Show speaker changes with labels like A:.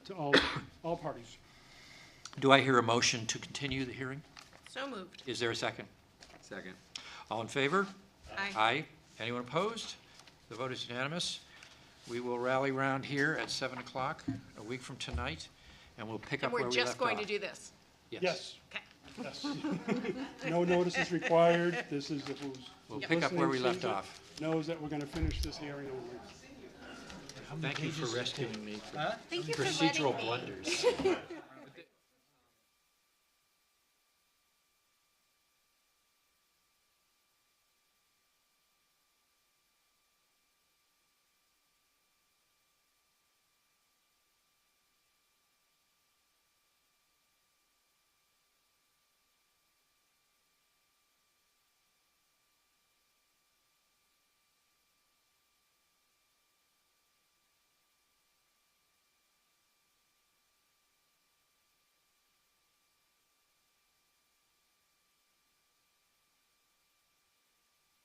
A: to all, all parties.
B: Do I hear a motion to continue the hearing?
C: So moved.
B: Is there a second?
D: Second.
B: All in favor?
C: Aye.
B: Aye. Anyone opposed? The vote is unanimous. We will rally round here at 7 o'clock, a week from tonight, and we'll pick
C: And
B: up where we
C: we're
B: left off.
C: just going to do this.
A: Yes,
C: Okay.
A: yes. No notice is required. This is, if who's.
B: We'll pick up where we left
A: listening
B: off.
A: sees it, Knows that we're going to finish this hearing only.
B: Thank you for rescuing me from
C: Thank you for letting
B: procedural
C: me.
B: blunders.